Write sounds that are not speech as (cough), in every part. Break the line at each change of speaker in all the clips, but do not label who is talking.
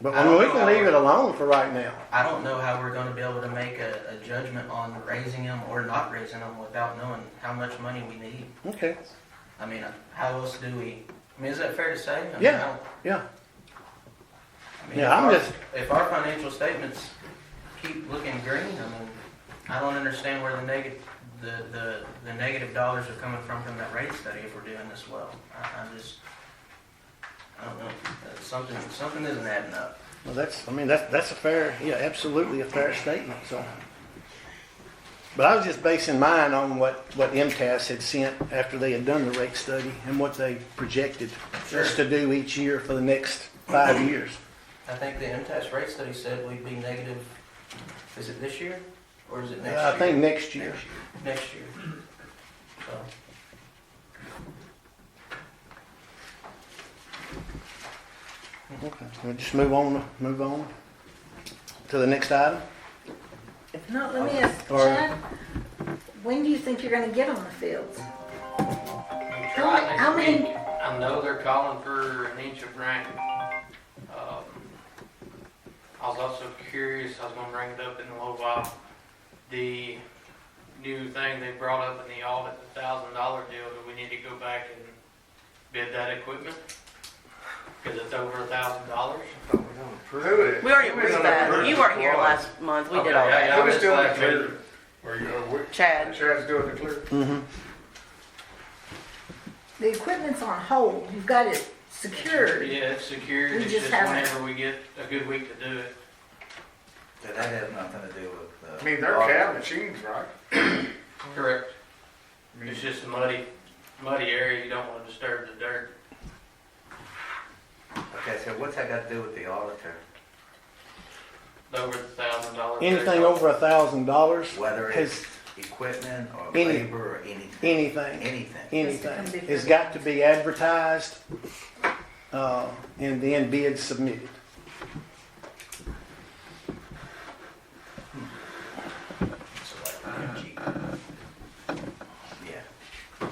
But
I
I mean, we
don't
can
know.
leave it alone for right now.
I don't know how we're gonna be able to make a, a judgment on raising them or not raising them without knowing how much money we need.
Okay,
I mean, how else do we, I mean, is that fair to say? I mean, I
Yeah.
don't-
yeah.
I mean,
Yeah,
if
I'm
our-
just-
If our financial statements keep looking green, I mean, I don't understand where the negative, the, the, the negative dollars are coming from from that rate study if we're doing this well. I, I just, I don't know, Uh, something, something isn't adding up.
Well, that's, I mean, that's, that's a fair, yeah, absolutely a fair statement, so. But I was just basing mine on what, what MTS had sent after they had done the rate study and what they projected us to do each year for the next five years.
I think the MTS rate study said we'd be negative, is it this year or is it next year?
I think next year.
Next year. So,
Okay, we'll just move on, move on to the next item.
No, let me ask
Or-
Chad, when do you think you're gonna get on the fields?
We
How
tried
many- how
next
many-
week. I know they're calling for an inch of rain. Um, I was also curious, I was gonna bring it up in a little while, the new thing they brought up in the audit, the thousand dollar deal, do we need to go back and bid that equipment? Cause it's over a thousand dollars.
Prove
We already approved that. You weren't here last month. We did all that.
It was still in the clear. Or you know, we,
Chad,
Chad's doing the clear.
Mm-hmm.
The equipment's on hold, you've got it secured.
Yeah, it's secured,
We
it's
just
just
haven't-
whenever we get a good week to do it.
Did that have nothing to do with the?
I mean, they're cab machines, right?
Mm-hmm.
Correct. It's just a muddy, muddy area, you don't wanna disturb the dirt.
Okay, so what's that got to do with the auditor?
over the thousand dollars.
Anything over a thousand dollars,
Whether
has,
it's equipment or
Any-
labor or anything?
anything,
Anything.
anything, has got to be advertised, uh, and then bids submitted.
So like, gee. Yeah.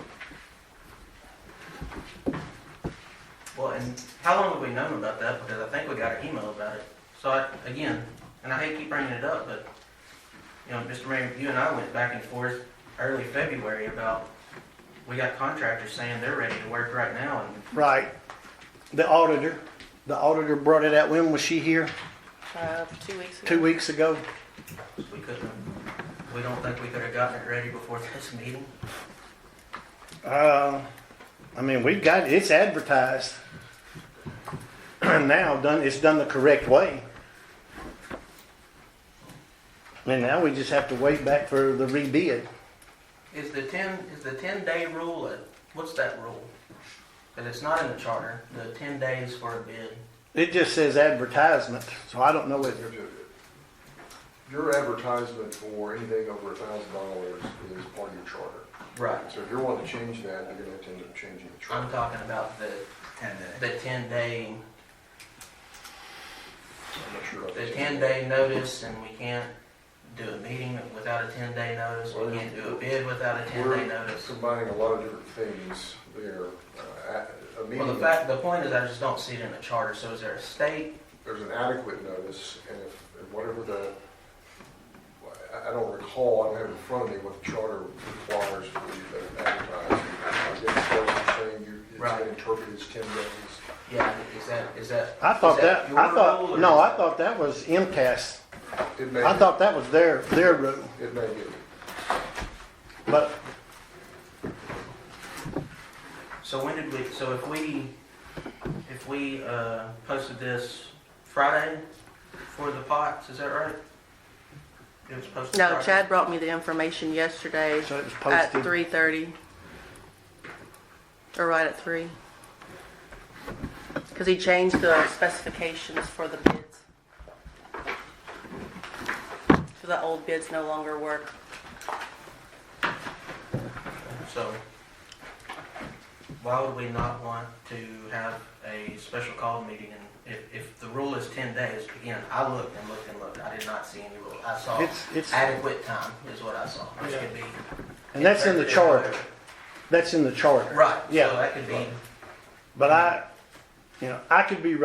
Well, and how long have we known about that? Because I think we got an email about it. So I, again, and I hate to keep bringing it up, but, you know, Mr. Mayor, you and I went back and forth early February about, we got contractors saying they're ready to work right now and
Right. The auditor, the auditor brought it out, when was she here?
uh, two weeks ago.
Two weeks ago?
we couldn't, we don't think we could have gotten it ready before this (laughs) meeting.
Uh, I mean, we've got, it's advertised. Now, done, it's done the correct way. And now we just have to wait back for the rebid.
Is the ten, is the ten day rule, a- what's that rule? Because it's not in the charter, the ten days for a bid.
It just says advertisement, so I don't know if
Your advertisement for anything over a thousand dollars is part of your charter.
Right.
So if you're wanting to change that, you're gonna have to end up changing the
I'm
charter.
talking about the,
Ten days.
the ten day
I'm not sure.
the ten day notice and we can't do a meeting without a ten day notice,
Well,
we
yeah.
can't do a bid without a ten day
We're
notice.
Combining a lot of different things there. Uh, a- A
Well, the
meeting,
fact, the point is I just don't see it in the charter, so is there a state?
there's an adequate notice and if, and whatever the, I, I don't recall, I don't have it in front of me what the charter requires for you to advertise. I guess that's what I'm saying, you, it's
Right.
been interpreted as ten days.
Yeah, is that, is that?
I thought
is
that,
your
I
rule
thought,
or
no,
is
I
that-
thought that was MCAS.
It may,
I thought that was their, their rule,
it may be.
but
So when did we, so if we, if we, uh, posted this Friday for the pots, is that right? It was posted
No,
Friday.
Chad brought me the information yesterday
so it was
at
posted.
three thirty. Or right at three. Cause he changed the specifications for the bids. So the old bids no longer work.
So why would we not want to have a special call meeting and if, if the rule is ten days, again, I looked and looked and looked, I did not see any rule. I saw
It's, it's,
adequate time is what I saw, which could be.
and that's in the charter, that's in the charter.
Right, so
Yeah.
that could be
But I, you know, I could be wrong.